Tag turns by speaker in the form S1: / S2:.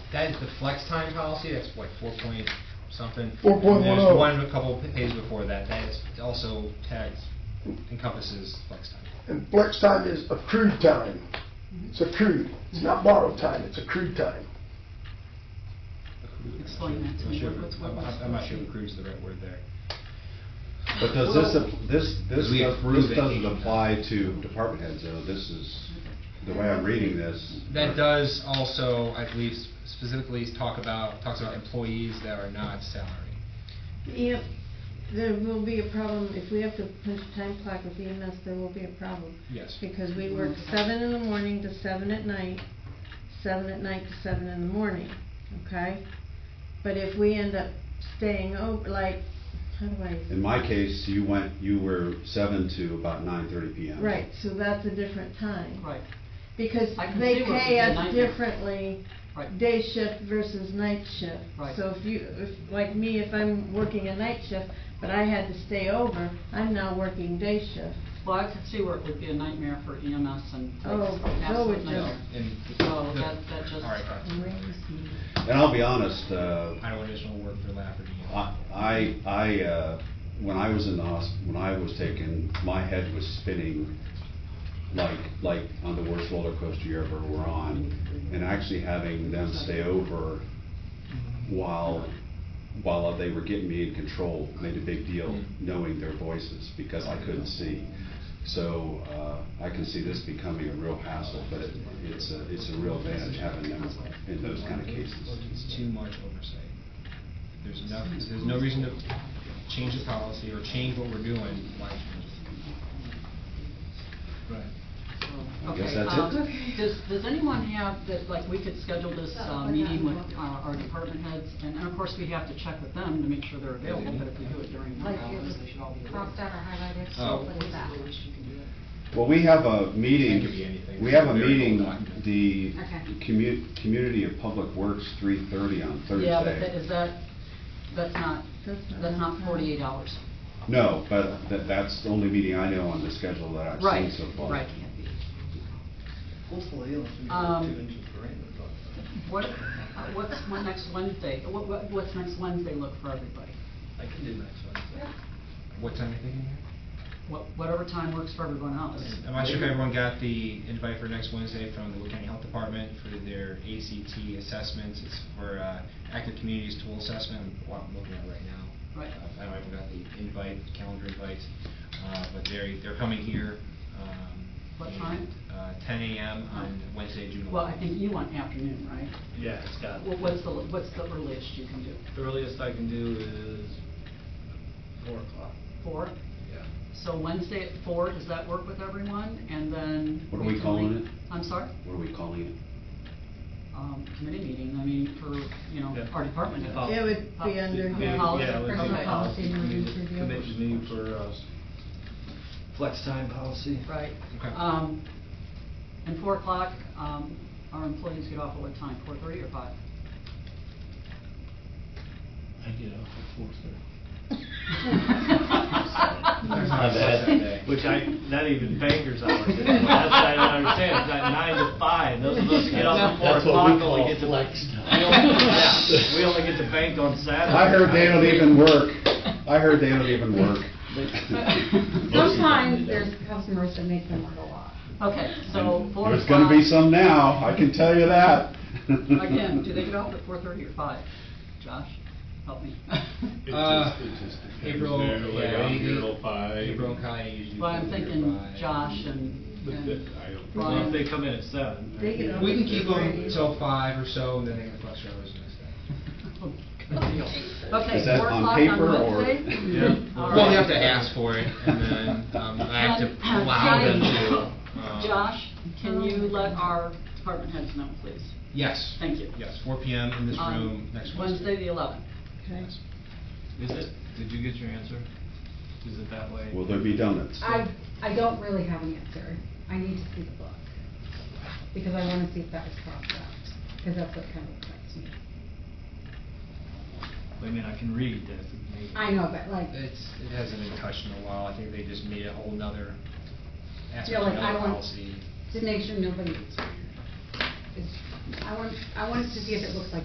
S1: That is the flex time policy, that's what, four point something?
S2: 4.10.
S1: And There's one a couple pages before that, that is also tags encompasses flex time.
S2: And flex time is accrued time. It's accrued. It's not borrowed time, it's accrued time.
S3: Explain that to me.
S1: I'm not sure-
S3: What's-
S1: I'm-
S3: what's-
S1: I'm not sure if accrues the right word there.
S4: But does this, ap- this, this,
S1: We
S4: does-
S1: approve
S4: this
S1: it.
S4: doesn't apply to department heads, though, this is, the way I'm reading this.
S1: That does also, I believe, s- specifically talk about, talks about employees that are not salary.
S5: Yep, there will be a problem, if we have to push time clock with EMS, there will be a problem.
S1: Yes.
S5: Because we work seven in the morning to seven at night, seven at night to seven in the morning, okay? But if we end up staying over, like, how do I,
S4: In my case, you went, you were seven to about nine thirty PM.
S5: right, so that's a different time.
S3: Right,
S5: Because
S3: I can
S5: they
S3: see where
S5: pay
S3: the night-
S5: us differently,
S3: right.
S5: day shift versus night shift.
S3: Right.
S5: So if you, if, like me, if I'm working a night shift, but I had to stay over, I'm now working day shift.
S3: Well, I could see where it would be a nightmare for EMS and.
S5: Oh, so
S3: absolute
S5: would
S1: No,
S3: nightmare.
S5: you.
S1: and-
S3: So Oh, that, that just.
S1: All right, all right.
S4: And I'll be honest, uh,
S1: I don't additional work for Lafferty.
S4: I, I, uh, when I was in the hos, when I was taken, my head was spinning like, like on the worst roller coaster you ever were on. And actually having them stay over while, while they were getting me in control made a big deal knowing their voices because I couldn't see. So, uh, I can see this becoming a real hassle, but it, it's a, it's a real advantage having them in those kind of cases.
S1: It's too much oversight. There's enough, there's no reason to change the policy or change what we're doing, why change it? Right.
S4: I
S3: Okay,
S4: guess that's
S3: um,
S4: it.
S3: Does, does anyone have, that, like, we could schedule this, uh, meeting with uh, our department heads, and and of course, we have to check with them to make sure they're available, but if we do it during their
S6: Like you
S3: hours, they should all be
S6: crossed
S3: available.
S6: out or highlighted,
S1: Oh.
S6: so put it back.
S4: Well, we have
S1: It
S4: a
S1: could be
S4: meeting,
S1: anything.
S4: we have a
S1: Very
S4: meeting,
S1: cool document.
S4: the
S6: Okay.
S4: commu- Community of Public Works, three thirty on
S3: Yeah, but that,
S4: Thursday.
S3: is that, that's not,
S5: That's not
S3: that's not
S5: enough.
S3: forty-eight hours.
S4: No, but tha- that's the only meeting I know on the schedule that I've
S3: Right,
S4: seen so far.
S3: right.
S7: Hopefully, it'll be
S3: Um,
S7: two inches of rain. but-
S3: What, uh, what's my next Wednesday, what, what- what's next Wednesday look for everybody?
S7: I can do next Wednesday.
S1: What time are you thinking here?
S3: What- Whatever time works for everyone else.
S1: I'm not sure if everyone got the invite for next Wednesday from the Wood County Health Department for their ACT assessments. It's for uh, active communities tool assessment, what I'm looking at right now.
S3: Right.
S1: Uh, I don't know if we got the invite, calendar invites, uh, but they're, they're coming here. um,
S3: What
S1: and,
S3: time?
S1: uh, 10 a.m. on Wednesday, June 11th.
S3: Well, I think you want afternoon, right?
S7: Yeah, it's got,
S3: Wha- What's the, what's the earliest you can do?
S7: the earliest I can do is four o'clock.
S3: Four?
S7: Yeah.
S3: So Wednesday at four, does that work with everyone? And then.
S4: What are we
S3: can
S4: calling
S3: link-
S4: it?
S3: I'm sorry?
S4: What are we calling it?
S3: Um, committee meeting, I mean, for, you know,
S7: Yeah.
S3: our department. heads.
S7: Oh.
S5: It would be
S3: Yeah,
S5: under.
S7: Maybe-
S3: Policy.
S7: Yeah, it would be
S3: Okay.
S7: policy
S6: Policy
S7: committee,
S6: review.
S7: committee meeting for, uh, flex time policy.
S3: Right.
S1: Okay.
S3: Um, and four o'clock, um, our employees get off at what time, four thirty or five?
S7: I get off at four thirty.
S1: There's not a set day.
S7: Which I, not even banker's hours, that's what I don't understand, it's not nine to five, those of us who get off at four
S8: That's what we
S7: o'clock only
S8: call
S7: get to.
S8: flex
S7: We only- yeah, we only get to bank on Saturday.
S4: I heard they don't even work. I heard they don't even work.
S6: Sometimes there's customers that make them work a lot.
S3: Okay, so four o'clock.
S4: There's gonna be some now, I can tell you that.
S3: Again, do they get off at four thirty or five? Josh, help me.
S1: Uh,
S8: It just- it just depends
S1: April,
S8: there, like,
S1: yeah,
S8: I'm
S1: they-
S8: here till five.
S1: April and Kai usually.
S3: Well, I'm
S1: come here
S3: thinking
S1: by-
S3: Josh and,
S8: But that-
S3: and
S8: I don't-
S3: Brian.
S7: Well, if they come in at seven.
S5: They get off
S1: We can
S5: at
S1: keep them
S5: 3:30.
S1: till five or so, and then they can flex their hours the next day.
S3: Okay,
S4: Is that
S3: four
S4: on
S3: o'clock
S4: paper
S3: on
S4: or-
S3: Wednesday?
S7: Yeah.
S3: All
S1: Well, you
S3: right.
S1: have to ask for it, and then um, I have to
S3: Um,
S1: allow them
S3: Johnny-
S1: to. um,
S3: Josh, can you let our department heads know, please?
S1: Yes.
S3: Thank you. Um,
S1: Yes, 4 PM in this
S3: On
S1: room next Wednesday.
S3: the eleventh.
S5: Okay.
S1: Yes.
S7: Is it, did you get your answer? Is it that way?
S4: Will there be donuts?
S6: I, I don't really have an answer. I need to see the book, because I wanna see if that was crossed out, because that's what kind of affects me.
S7: I mean, I can read that. maybe.
S6: I know, but like,
S1: It's, it hasn't been touched in a while, I think they just made a whole nother
S6: Yeah,
S1: aspect,
S6: like, I
S1: another
S6: want-
S1: policy.
S6: to make sure nobody is, I want, I want to see if it looks like